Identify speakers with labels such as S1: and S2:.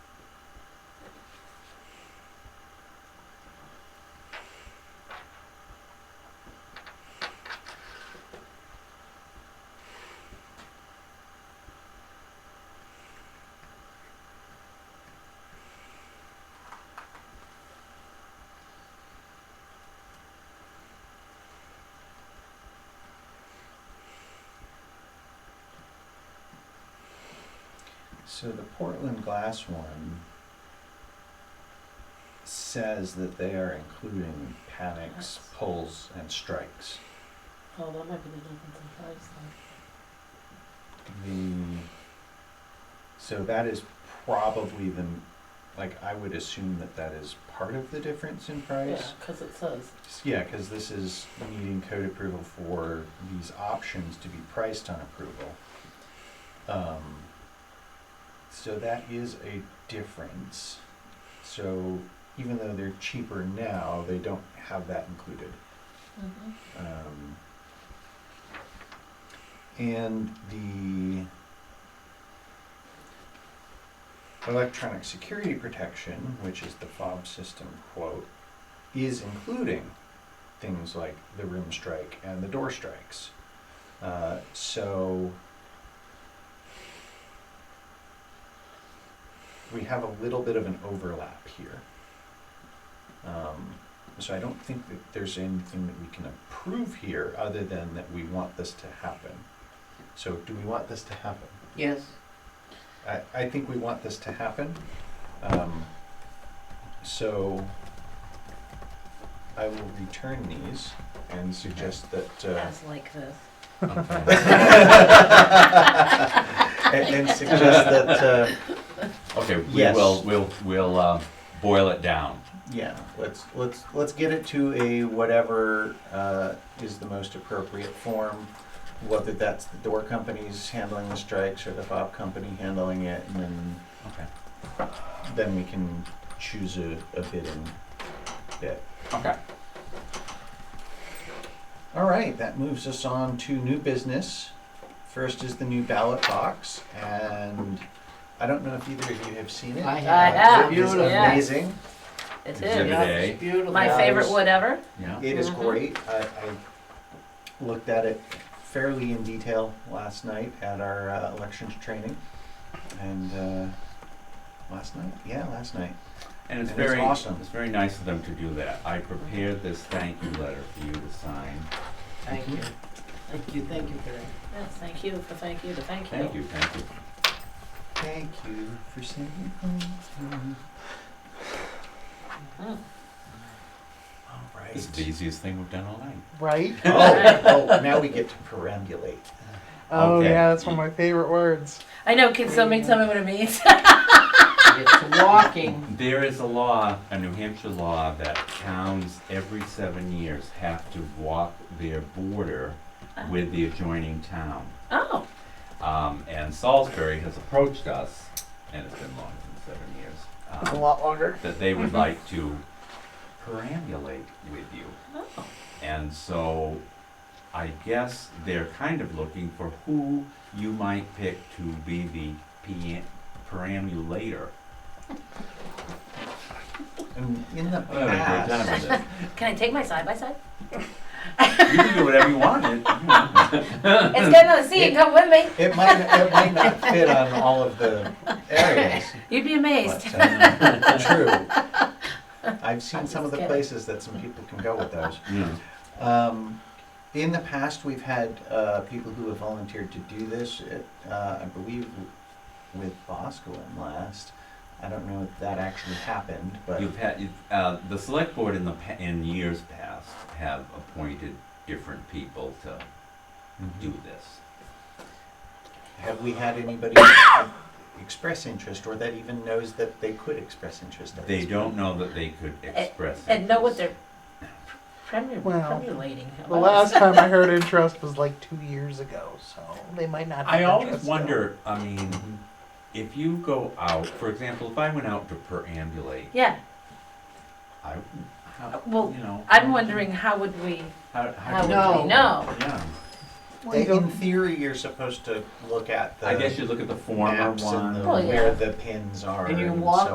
S1: So the Portland Glass one says that they are including panics,
S2: That's-
S1: pulls, and strikes.
S2: Oh, that might be the difference in price then.
S1: The, so that is probably the, like, I would assume that that is part of the difference in
S2: Yeah,
S1: price.
S2: because it says,
S1: Yeah, because this is needing code approval for these options to be priced on approval. Um, So that is a difference. So even though they're cheaper now, they don't have that included.
S2: Mhm.
S1: Um, and the electronic security protection, which is the fob system quote, is including things like the room strike and the door strikes. Uh, so we have a little bit of an overlap here. Um, so I don't think that there's anything that we can approve here other than that we want this to happen. So do we want this to happen?
S3: Yes.
S1: I, I think we want this to happen. Um, so I will return these and suggest that, uh,
S3: As like this.
S1: and, and suggest that, uh,
S4: Okay, we
S1: Yes.
S4: will, we'll, we'll, uh, boil it down.
S1: yeah, let's, let's, let's get it to a whatever, uh, is the most appropriate form. Whether that's the door companies handling the strikes or the fob company handling it and then
S4: Okay.
S1: then we can choose a, a bidding bit.
S4: Okay.
S1: All right, that moves us on to new business. First is the new ballot box, and I don't know if either of you have seen it. Uh,
S3: I have.
S2: I have,
S1: It is
S2: yes.
S1: amazing.
S2: It
S4: Exhibit
S2: is.
S4: A.
S3: Beautiful.
S2: My
S1: Yeah,
S2: favorite
S1: it's-
S2: wood ever.
S4: Yeah.
S1: It is
S2: Mhm.
S1: great. I, I looked at it fairly in detail last night at our uh, elections training, and uh, last night, yeah, last night.
S4: And it's
S1: And it's
S4: very,
S1: awesome.
S4: it's very nice of them to do that. I prepared this thank you letter for you to sign.
S3: Thank you. Thank you, thank you for that.
S2: Yes, thank you for thank you to thank you.
S4: Thank you, thank you.
S1: Thank you for sending those to me.
S2: Mhm.
S1: All right.
S4: This is the easiest thing we've done all night.
S5: Right?
S1: oh, oh, now we get to perambulate.
S5: Oh,
S4: Okay.
S5: yeah, that's one of my favorite words.
S2: I know, can somebody tell me what it means?
S3: It's walking.
S4: There is a law, a New Hampshire law, that towns every seven years have to walk their border with the adjoining town.
S2: Oh,
S4: Um, and Salisbury has approached us, and it's been longer than seven years,
S5: A
S4: um,
S5: lot longer.
S4: that they
S2: Mm-hmm.
S4: would like to perambulate with you.
S2: oh,
S4: And so I guess they're kind of looking for who you might pick to be the pe- perambulator.
S1: And in the
S4: I haven't heard Oh, that
S1: past,
S4: about
S2: can I take my side by side?
S4: it. You can do whatever you want. It- you know.
S2: It's good to see you, come with me.
S1: it might it might not fit on all of the areas.
S2: You'd be amazed.
S1: But, uh, true. I've seen
S2: I'm
S1: some of
S2: just
S1: the
S2: kidding.
S1: places that some people can go with those.
S4: Yeah.
S1: Um, in the past, we've had uh, people who have volunteered to do this. It, uh, I believe with Boscoin last. I don't know if that actually happened, but
S4: You've had, you've, uh, the select board in the, pa- in years past have appointed different people to do this.
S1: Mm-hmm. Have we had anybody express interest or that even knows that they could express interest? at
S4: They
S1: this
S4: don't know that they could express.
S2: And know what
S4: interest.
S2: they're premu-
S5: Well,
S2: premulating.
S5: The last time I heard interest was like two years ago, so they might not.
S4: I
S5: have
S4: always
S5: interest
S4: wonder, I mean,
S2: Mm-hmm.
S1: point?
S4: if you go out, for example, if I went out to perambulate,
S2: Yeah,
S4: I, how,
S2: Uh, well,
S4: you know.
S2: I'm wondering how would we, how
S4: How, how, do
S2: would
S3: No.
S2: we know?
S4: Yeah,
S5: still. Well,
S1: They-
S5: you
S1: in
S5: don't-
S1: theory, you're supposed to look at the
S4: I guess you look at the former
S1: maps
S4: one.
S1: and the,
S2: Well, yeah.
S1: where the pins are.
S3: And you
S1: so
S3: walk